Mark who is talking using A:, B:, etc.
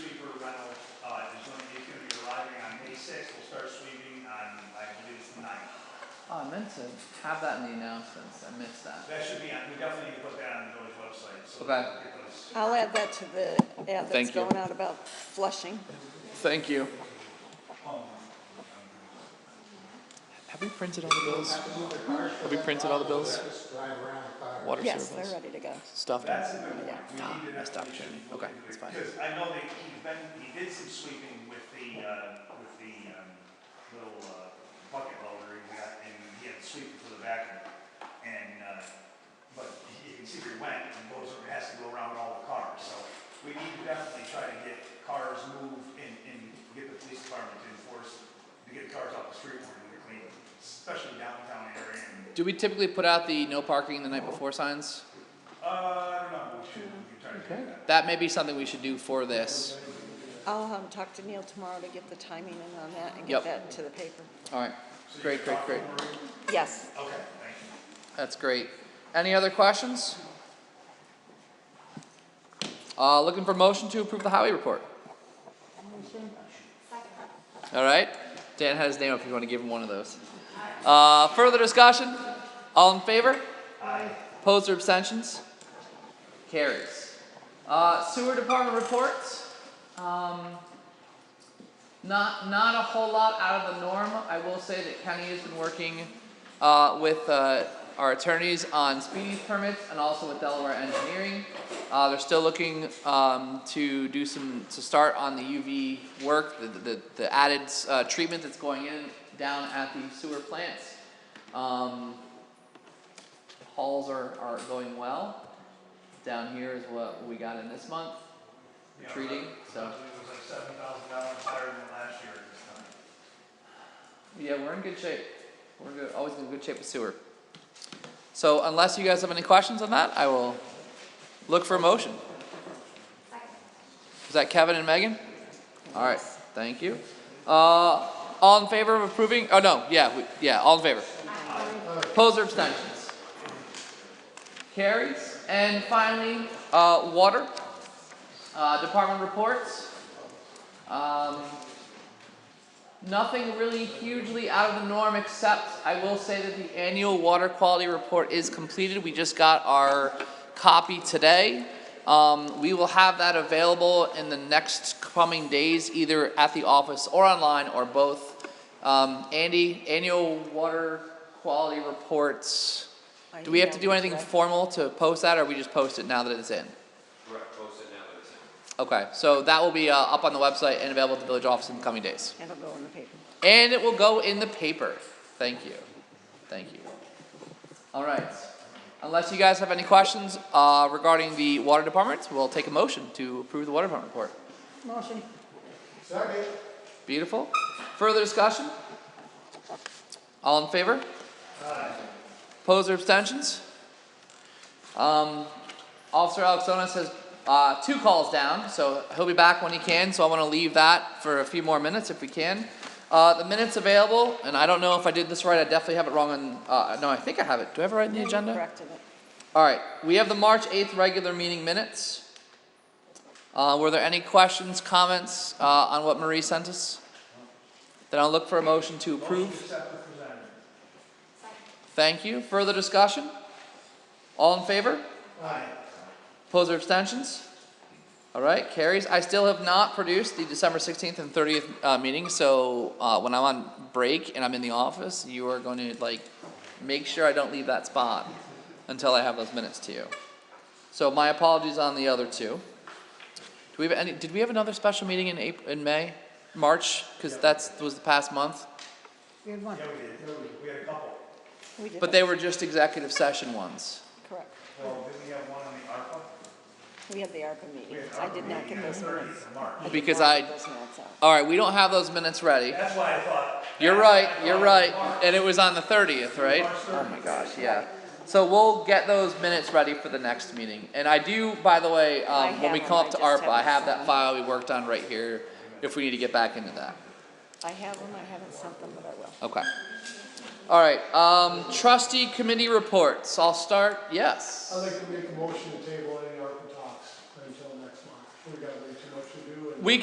A: uh,
B: Oh, meant to have that in the announcements, I missed that.
A: That should be on, we definitely need to put that on the village website, so.
B: Okay.
A: it was-
C: I'll add that to the ad
B: Thank
C: that's
B: you.
C: going out about flushing.
B: Thank you.
D: Have we printed all the bills? Have we printed all the bills? Water
C: Yes, they're
D: service,
C: ready to go.
D: stuff,
A: That's a good
C: Yeah.
A: one. We need to
D: I stopped
A: definitely
D: checking.
A: should
D: Okay,
A: look
D: that's
A: into
D: fine.
A: it, Because I know that he's been, he did some sweeping with the, uh, with the, um, little, uh, bucket loader he got, and he had to sweep it to the vacuum. And, uh, but you can see where he went, and goes, and has to go around all the cars, so we need to definitely try to get cars moved and, and get the police department to enforce, to get cars off the street more and clean, especially downtown area and
B: Do we typically put out the no parking the night before signs?
A: Uh, I don't know, we should, we can try to do that.
B: That may be something we should do for this.
C: I'll um, talk to Neil tomorrow to get the timing in on that and
B: Yep.
C: get that to the paper.
B: Alright, great, great, great.
C: Yes.
A: Okay, thank you.
B: That's great. Any other questions? Uh, looking for motion to approve the highway report. All right, Dan had his name up if you want to give him one of those. Uh, further discussion? All in favor? Aye. Opposed or abstentions? Carries. Uh, sewer department reports. Um, not, not a whole lot out of the norm. I will say that Kenny has been working, uh, with, uh, our attorneys on speedy permits and also with Delaware Engineering. Uh, they're still looking, um, to do some, to start on the UV work, the, the, the added, uh, treatment that's going in down at the sewer plants. Um, hauls are, are going well. Down here is what we got in this month,
A: Yeah,
B: treating, so.
A: It was like seven thousand dollars higher than last year at this time.
B: Yeah, we're in good shape. We're good, always in good shape with sewer. So unless you guys have any questions on that, I will look for a motion. Is that Kevin and Megan? All right, thank you. Uh, all in favor of approving, oh no, yeah, we, yeah, all in favor. Opposed or abstentions? Carries. And finally, uh, water, uh, department reports. Um, Nothing really hugely out of the norm, except I will say that the annual water quality report is completed. We just got our copy today. Um, we will have that available in the next coming days, either at the office or online or both. Um, Andy, annual water quality reports.
C: I
B: Do we have to
C: emailed
B: do
C: you
B: anything
C: today.
B: formal to post that, or we just post it now that it's in?
E: Correct, post it now that it's in.
B: Okay, so that will be, uh, up on the website and available at the village office in the coming days.
C: It'll go in the paper.
B: And it will go in the paper. Thank you. Thank you. All right. Unless you guys have any questions uh, regarding the water department, we'll take a motion to approve the water department report.
C: Motion.
F: Second.
B: Beautiful. Further discussion? All in favor? Aye. Opposed or abstentions? Um, Officer Alexonis has, uh, two calls down, so he'll be back when he can, so I wanna leave that for a few more minutes if we can. Uh, the minutes available, and I don't know if I did this right, I definitely have it wrong on, uh, no, I think I have it. Do I have it right in the agenda?
C: Corrected it.
B: Alright, we have the March eighth regular meeting minutes. Uh, were there any questions, comments, uh, on what Marie sent us? Then I'll look for a motion to approve.
A: Except for presented.
B: Thank you. Further discussion? All in favor?
A: Aye.
B: Opposed or abstentions? All right, carries. I still have not produced the December sixteenth and thirtieth, uh, meeting, so, uh, when I'm on break and I'm in the office, you are going to, like, make sure I don't leave that spot until I have those minutes to you. So my apologies on the other two. Do we have any, did we have another special meeting in April, in May, March? Cause that's, was the past month,
C: We had one.
A: Yeah, we did, No, we- we had a couple.
C: We did.
B: but
C: it.
B: they were just executive session ones.
C: Correct.
A: Well, didn't we have one on the ARPA?
C: We had the ARPA meeting.
A: We had
C: I
A: ARPA
C: did not
A: meeting
C: get
A: on the
C: those
A: 30th
C: minutes.
A: of March.
C: did
B: Because
C: not
B: I-
C: get Those minutes out.
B: All right, we don't have those minutes ready.
A: That's why I thought.
B: You're
A: that's why I
B: right, you're
A: thought
B: right,
A: March.
B: and it was on the thirtieth, right?
A: March
B: Oh
A: 30th.
B: my gosh, yeah. So we'll get those minutes ready for the next meeting, and I do, by the way,
C: I
B: um, when we
C: have
B: come
C: them,
B: up to
C: I just
B: ARPA, I
C: haven't
B: have that
C: sent them.
B: file we worked on right here, if we need to get back into that,
C: I have them. I haven't sent them, but I will.
B: okay. Alright, um, trustee committee reports, I'll start, yes.
F: I'd like to make a motion to table any